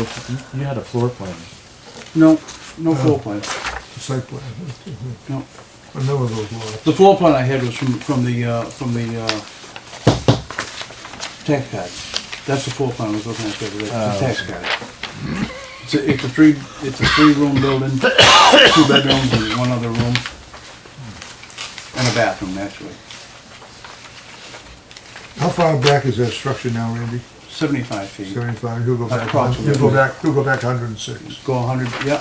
You you had a floor plan. No, no floor plan, The site plan, no. I never those lots. The floor plan I had was from, from the, uh, from the, uh, tax card. That's the floor plan I was looking at the other day, Oh. it's a tax card. It's a, it's a three, it's a three-room building, two bedrooms and one other room. And a bathroom, naturally. How far back is that structure now, Randy? Seventy-five feet, Seventy-five, he'll go back, Approximately. he'll go back, he'll go back hundred and six. go hundred, yeah,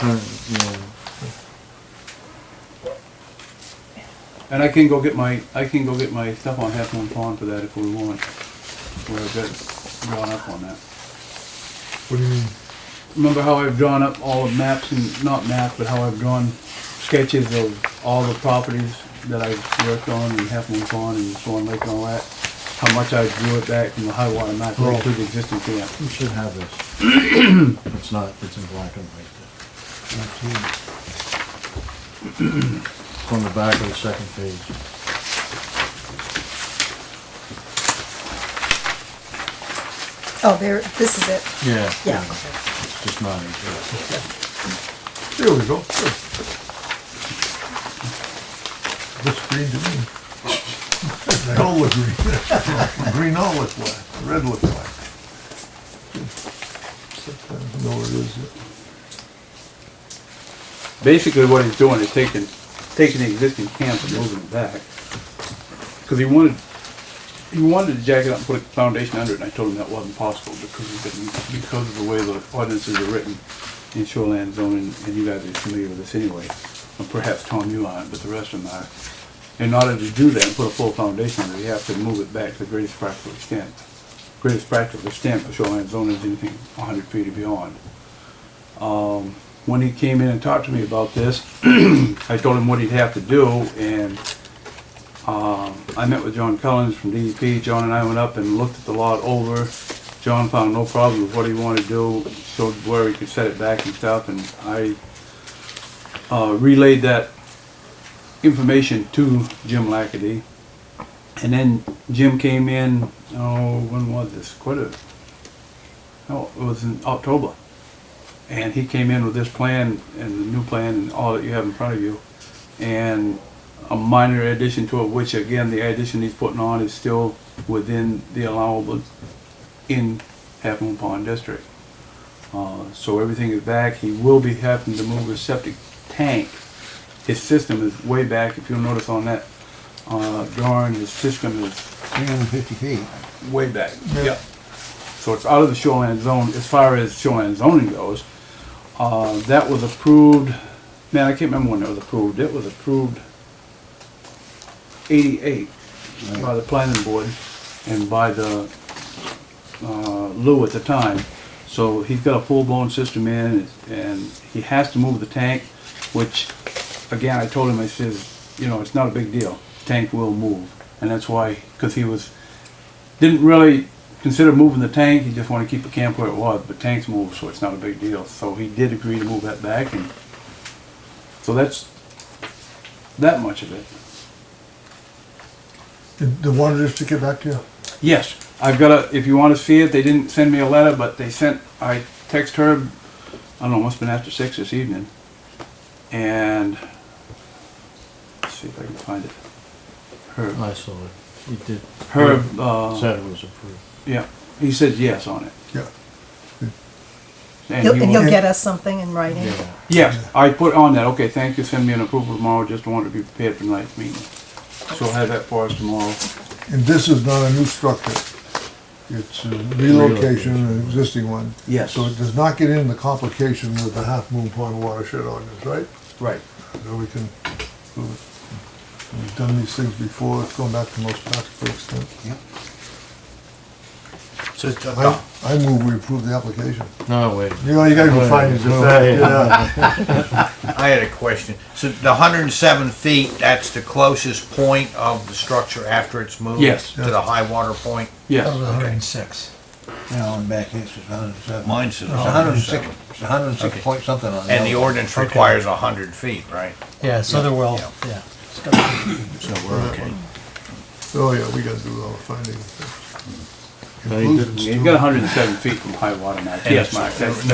and I can go get my, I can go get my stuff on Half Moon Pond for that if we want. Where I've got drawn up on that. What do you mean? remember how I've drawn up all the maps and not maps, but how I've drawn sketches of all the properties that I've worked on and Half Moon Pond and Swan Lake and all that. How much I drew it back from the high water mark right to the existing camp. You should have this. It's not, it's in black and white. It's on the back of the second page. Oh, there, this is it. Yeah. Yeah. It's just not incorrect. There we go. Good. Looks green to me. They all look green. Green all look black, red look black. Sometimes know where it is. Basically, what he's doing is taking, taking the existing camp and moving it back. Cause he wanted, he wanted to jack it up and put a foundation under it, and I told him that wasn't possible because he couldn't, because of the way the ordinances are written in shoreline zoning, and you guys are familiar with this anyway. And perhaps Tom, you aren't, but the rest of them are. In order to do that and put a full foundation under it, you have to move it back to the greatest practical extent. Greatest practical extent for shoreline zoning is anything hundred feet or beyond when he came in and talked to me about this, I told him what he'd have to do, and um, I met with John Collins from DEP. John and I went up and looked at the lot over. John found no problem with what he wanted to do, showed where he could set it back and stuff, and I uh, relayed that information to Jim Lackady. And then Jim came in, oh, when was this? Quite a, oh, it was in October. And he came in with this plan and the new plan and all that you have in front of you. And a minor addition to it, which again, the addition he's putting on is still within the allowable in Half Moon Pond District. Uh, so everything is back. He will be having to move his septic tank. His system is way back, if you'll notice on that, uh, drawing, his system is Three hundred and fifty feet. way back. Yeah. Yep. So it's out of the shoreline zone, as far as shoreline zoning goes. Uh, that was approved, man, I can't remember when it was approved, it was approved eighty-eight by the planning board and by the, uh, Lou at the time. So he's got a full-blown system in and he has to move the tank, which, again, I told him, I says, you know, it's not a big deal. Tank will move. And that's why, cause he was, didn't really consider moving the tank. He just wanted to keep the camp where it was, but tanks move, so it's not a big deal. So he did agree to move that back, and so that's that much of it. Did the water district get back to you? Yes, I've got a. If you want to see it, they didn't send me a letter, but they sent. I text her. I don't know. It must have been after six this evening, and let's see if I can find it. Her, I saw it. It did. her. Uh, Said it was approved. yeah, he said yes on it, Yeah. and He'll, he and will- he'll get us something in writing. Yeah. Yes, I put on that, okay, thank you, send me an approval tomorrow, just want to be prepared for tonight's meeting. So I'll have that for us tomorrow. And this is not a new structure. It's a relocation of an existing one. Yes. So it does not get into the complication with the Half Moon Pond watershed ordinance, right? Right. So we can, we've done these things before, it's going back to most practical extent. So, I, I move we approve the application. No, wait. You know, you gotta go find it, No, yeah. just, yeah. I had a question. So the hundred and seven feet, that's the closest point of the structure after it's moved? Yes. To the high water point? That was Yes, hundred and six. Now on back, this is hundred and seven. Mine says It's hundred and six, 107. Oh, it's hundred and six Okay. point something on. And the other one. ordinance requires a hundred feet, right? Yeah, Sotherwell, Yeah. yeah. It's got- So we're okay. Oh, yeah, we gotta do all the findings. No, you didn't. you've got hundred and seven feet from high water mark, yes, Mark, that's, that's